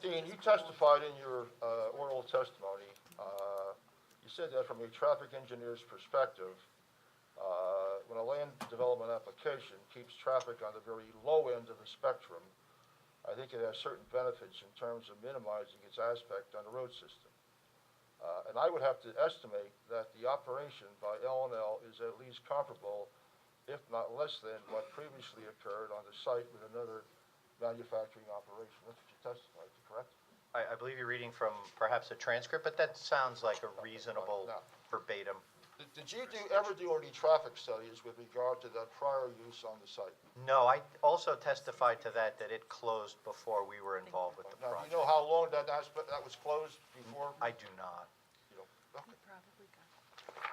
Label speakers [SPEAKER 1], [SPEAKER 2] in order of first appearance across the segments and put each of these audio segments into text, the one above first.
[SPEAKER 1] Dean, you testified in your uh, oral testimony, uh, you said that from a traffic engineer's perspective, uh, when a land development application keeps traffic on the very low end of the spectrum, I think it has certain benefits in terms of minimizing its aspect on the road system. Uh, And I would have to estimate that the operation by L and L is at least comparable, if not less than, what previously occurred on the site with another manufacturing operation. That's what you testified to, correct?
[SPEAKER 2] I, I believe you're reading from perhaps a transcript, but that sounds like a reasonable
[SPEAKER 1] No.
[SPEAKER 2] verbatim.
[SPEAKER 1] Did- Did you do, ever do any traffic studies with regard to that prior use on the site?
[SPEAKER 2] No, I also testified to that, that it closed before we were involved with the
[SPEAKER 1] Now, do you
[SPEAKER 2] project.
[SPEAKER 1] know how long that aspect, that was closed before?
[SPEAKER 2] I do not.
[SPEAKER 1] You don't- okay.
[SPEAKER 3] Probably got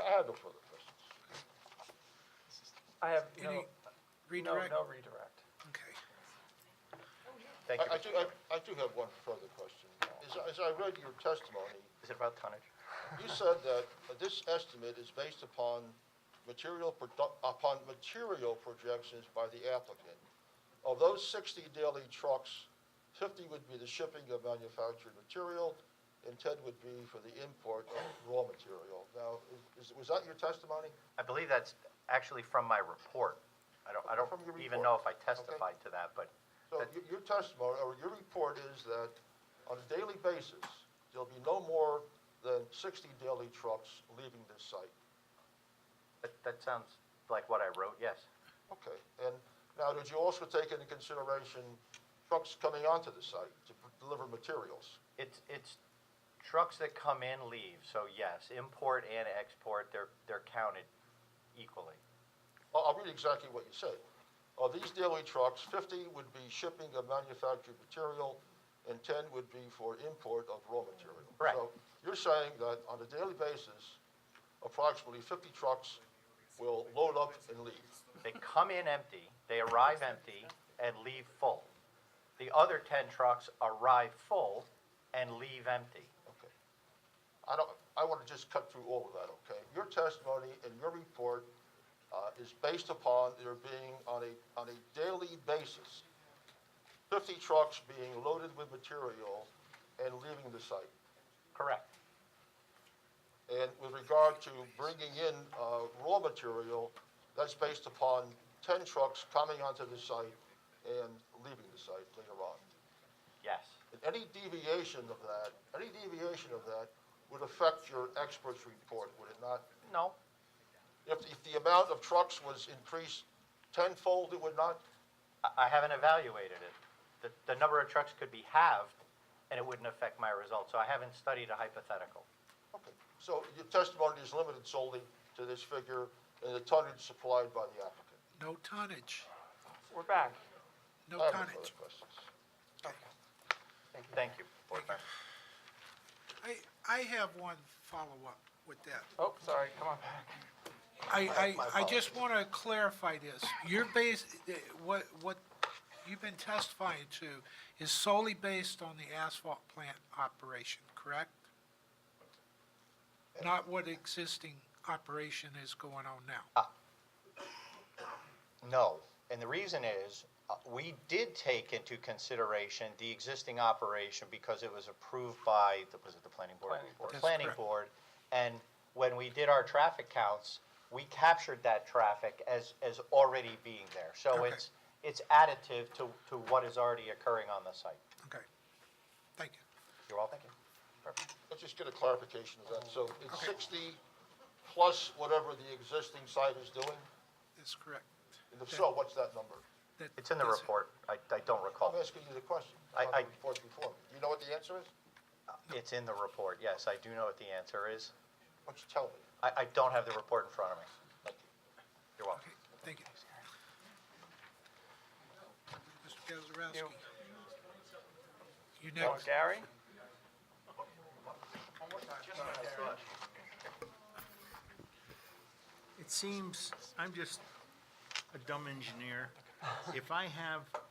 [SPEAKER 1] I have no further questions.
[SPEAKER 4] I have
[SPEAKER 5] Any
[SPEAKER 4] no, no,
[SPEAKER 5] redirect?
[SPEAKER 4] no redirect.
[SPEAKER 5] Okay.
[SPEAKER 2] Thank you.
[SPEAKER 1] I I
[SPEAKER 2] Mr.
[SPEAKER 1] do,
[SPEAKER 2] Chairman.
[SPEAKER 1] I- I do have one further question. As I- As I read your testimony,
[SPEAKER 2] Is it about tonnage?
[SPEAKER 1] You said that this estimate is based upon material, produ- upon material projections by the applicant. Of those 60 daily trucks, 50 would be the shipping of manufactured material, and 10 would be for the import of raw material. Now, is- was that your testimony?
[SPEAKER 2] I believe that's actually from my report. I don't, I
[SPEAKER 1] From your
[SPEAKER 2] don't even
[SPEAKER 1] report.
[SPEAKER 2] know if I testified to that, but
[SPEAKER 1] So your- your testimony, or your report is that on a daily basis, there'll be no more than 60 daily trucks leaving this site.
[SPEAKER 2] that, that sounds like what I wrote, yes.
[SPEAKER 1] Okay, and now, did you also take into consideration trucks coming onto the site to deliver materials?
[SPEAKER 2] It's, it's trucks that come in, leave, so yes, import and export, they're, they're counted equally.
[SPEAKER 1] I'll, I'll read exactly what you said. Of these daily trucks, 50 would be shipping of manufactured material, and 10 would be for import of raw material.
[SPEAKER 2] Correct.
[SPEAKER 1] So you're saying that on a daily basis, approximately 50 trucks will load up and leave?
[SPEAKER 2] They come in empty, they arrive empty, and leave full. The other 10 trucks arrive full and leave empty.
[SPEAKER 1] Okay. I don't, I want to just cut through all of that, okay? Your testimony and your report uh, is based upon there being on a, on a daily basis, 50 trucks being loaded with material and leaving the site.
[SPEAKER 2] Correct.
[SPEAKER 1] And with regard to bringing in uh, raw material, that's based upon 10 trucks coming onto the site and leaving the site later on.
[SPEAKER 2] Yes.
[SPEAKER 1] And Any deviation of that, any deviation of that would affect your expert's report, would it not?
[SPEAKER 2] No,
[SPEAKER 1] If, if the amount of trucks was increased tenfold, it would not?
[SPEAKER 2] I- I haven't evaluated it. The, the number of trucks could be halved, and it wouldn't affect my results, so I haven't studied a hypothetical.
[SPEAKER 1] Okay, so your testimony is limited solely to this figure and the tonnage supplied by the applicant.
[SPEAKER 5] No tonnage,
[SPEAKER 4] We're back.
[SPEAKER 5] no
[SPEAKER 1] I have no further
[SPEAKER 5] tonnage.
[SPEAKER 1] questions.
[SPEAKER 2] Thank you, Board Member.
[SPEAKER 5] I, I have one follow-up with that.
[SPEAKER 4] Oh, sorry, come on back.
[SPEAKER 5] I,
[SPEAKER 1] My
[SPEAKER 5] I, I just want to clarify this. You're based, what, what you've been testifying to is solely based on the asphalt plant operation, correct? Not what existing operation is going on now.
[SPEAKER 2] Ah. No, and the reason is, uh, we did take into consideration the existing operation because it was approved by, the- was it the planning board?
[SPEAKER 4] Planning board.
[SPEAKER 2] The
[SPEAKER 5] That's
[SPEAKER 2] planning
[SPEAKER 5] correct.
[SPEAKER 2] board, and when we did our traffic counts, we captured that traffic as, as already being there. So
[SPEAKER 5] Okay.
[SPEAKER 2] it's, it's additive to, to what is already occurring on the site.
[SPEAKER 5] Okay, thank you.
[SPEAKER 2] You're all thinking?
[SPEAKER 1] Let's just get a clarification of that. So it's 60 plus whatever the existing site is doing?
[SPEAKER 5] That's correct.
[SPEAKER 1] And if so, what's that number?
[SPEAKER 5] That-
[SPEAKER 2] It's in the
[SPEAKER 5] that's it.
[SPEAKER 2] report, I, I don't
[SPEAKER 1] I'm
[SPEAKER 2] recall.
[SPEAKER 1] asking you the question.
[SPEAKER 2] I-
[SPEAKER 1] Not the
[SPEAKER 2] I-
[SPEAKER 1] report before. Do you know what the answer is?
[SPEAKER 2] It's in the report, yes, I do know what the answer is.
[SPEAKER 1] Why don't you tell me?
[SPEAKER 2] I, I don't have the report in front of me.
[SPEAKER 1] Thank you.
[SPEAKER 2] You're welcome.
[SPEAKER 5] Okay, thank you. Mr. Gazarovski.
[SPEAKER 4] You.
[SPEAKER 5] You
[SPEAKER 4] Oh,
[SPEAKER 5] next.
[SPEAKER 4] Gary?
[SPEAKER 6] It seems, I'm just a dumb engineer. If I have